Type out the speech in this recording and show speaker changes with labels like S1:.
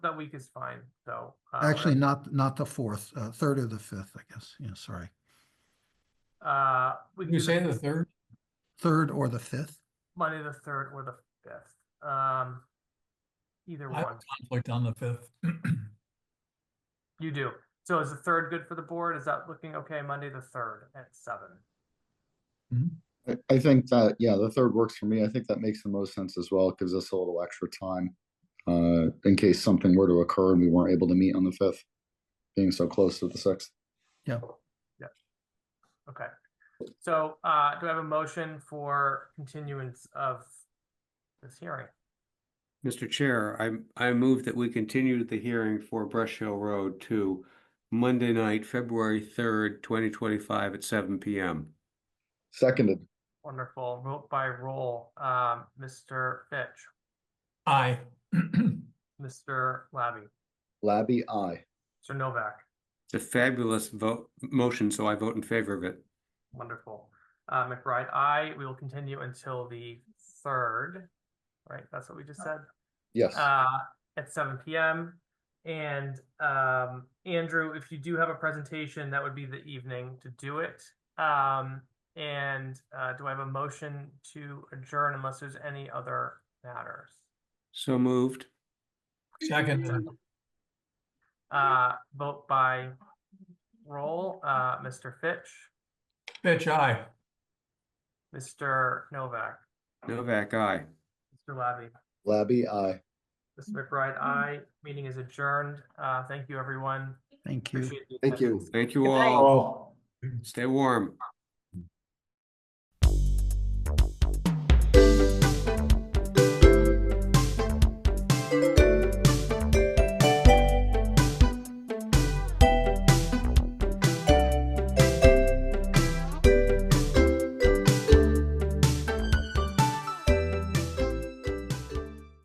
S1: that week is fine, so. uh, whatever.
S2: Actually, not, not the fourth, uh, third or the fifth, I guess. Yeah, sorry.
S1: Uh, we can
S3: You
S1: do
S3: say the third?
S2: Third or the fifth?
S1: Monday the third or the fifth, um. Either
S3: I have
S1: one,
S3: a conflict on the fifth.
S1: you do. So is the third good for the board? Is that looking okay? Monday the third at seven?
S4: I, I think that, yeah, the third works for me. I think that makes the most sense as well. It gives us a little extra time uh, in case something were to occur and we weren't able to meet on the fifth, being so close to the sixth.
S2: Yeah,
S1: Okay, so, uh, do I have a motion for continuance of this hearing?
S5: Mr. Chair, I, I move that we continue the hearing for Brush Hill Road to Monday night, February third, twenty twenty-five at seven PM.
S4: Seconded,
S1: Wonderful, vote by roll, um, Mr. Fitch,
S3: Aye.
S1: Mr. Labby,
S4: Labby, I.
S1: Mr. Novak,
S5: It's a fabulous vote, motion, so I vote in favor of it.
S1: wonderful. Uh, McBride, I, we will continue until the third, right? That's what we just said?
S4: Yes.
S1: uh, at 7 p.m. And um, Andrew, if you do have a presentation, that would be the evening to do it. Um, and uh, do I have a motion to adjourn unless there's any other matters?
S5: So moved.
S3: Second,
S1: Uh, vote by roll, uh, Mr. Fitch,
S3: Fitch, aye.
S1: Mr. Novak,
S5: Novak, aye.
S1: Mr. Labby,
S4: Labby, I.
S1: Mr. McBride.
S2: Mm-hmm.
S1: I meeting is adjourned. Uh, thank you, everyone.
S2: thank you.
S1: Appreciate the
S4: Thank you.
S1: attendance.
S5: Thank you
S1: Good night.
S5: all. Stay warm.